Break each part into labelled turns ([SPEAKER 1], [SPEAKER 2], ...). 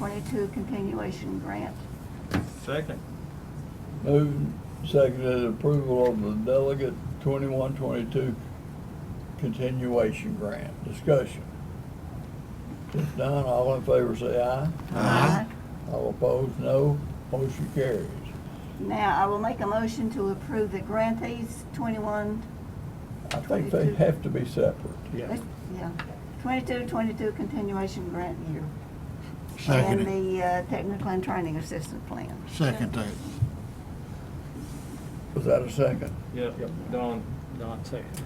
[SPEAKER 1] twenty-two continuation grant.
[SPEAKER 2] Second.
[SPEAKER 3] Moving, seconded approval of the delegate twenty-one, twenty-two continuation grant. Discussion. If none, all in favor say aye.
[SPEAKER 4] Uh-huh.
[SPEAKER 1] Aye.
[SPEAKER 3] All opposed, no. Motion carries.
[SPEAKER 1] Now, I will make a motion to approve the grantees twenty-one,
[SPEAKER 3] I think they
[SPEAKER 1] 22.
[SPEAKER 3] have to be separate.
[SPEAKER 2] Yeah.
[SPEAKER 1] yeah, twenty-two, twenty-two continuation grant year.
[SPEAKER 4] Second it.
[SPEAKER 1] And the uh, technical and training assistant plan.
[SPEAKER 4] Second that.
[SPEAKER 3] Was that a second?
[SPEAKER 2] Yep, Don, Don second.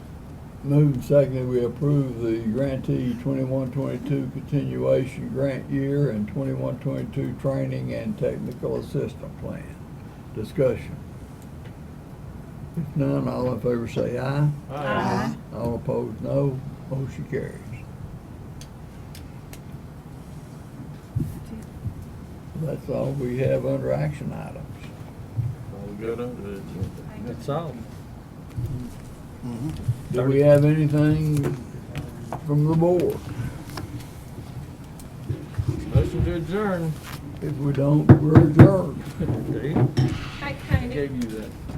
[SPEAKER 3] Moving, seconded, we approve the grantee twenty-one, twenty-two continuation grant year and twenty-one, twenty-two training and technical assistant plan. Discussion. If none, all in favor say aye.
[SPEAKER 1] Aye.
[SPEAKER 3] All opposed, no. Motion carries. That's all we have under action items.
[SPEAKER 2] All good under the agenda. That's all.
[SPEAKER 4] Mm-hmm.
[SPEAKER 3] Do we have anything from the board?
[SPEAKER 2] Motion to adjourn.
[SPEAKER 3] If we don't, we're adjourned.
[SPEAKER 2] Dave,
[SPEAKER 5] Hi,
[SPEAKER 2] I
[SPEAKER 5] Connie.
[SPEAKER 2] gave you that.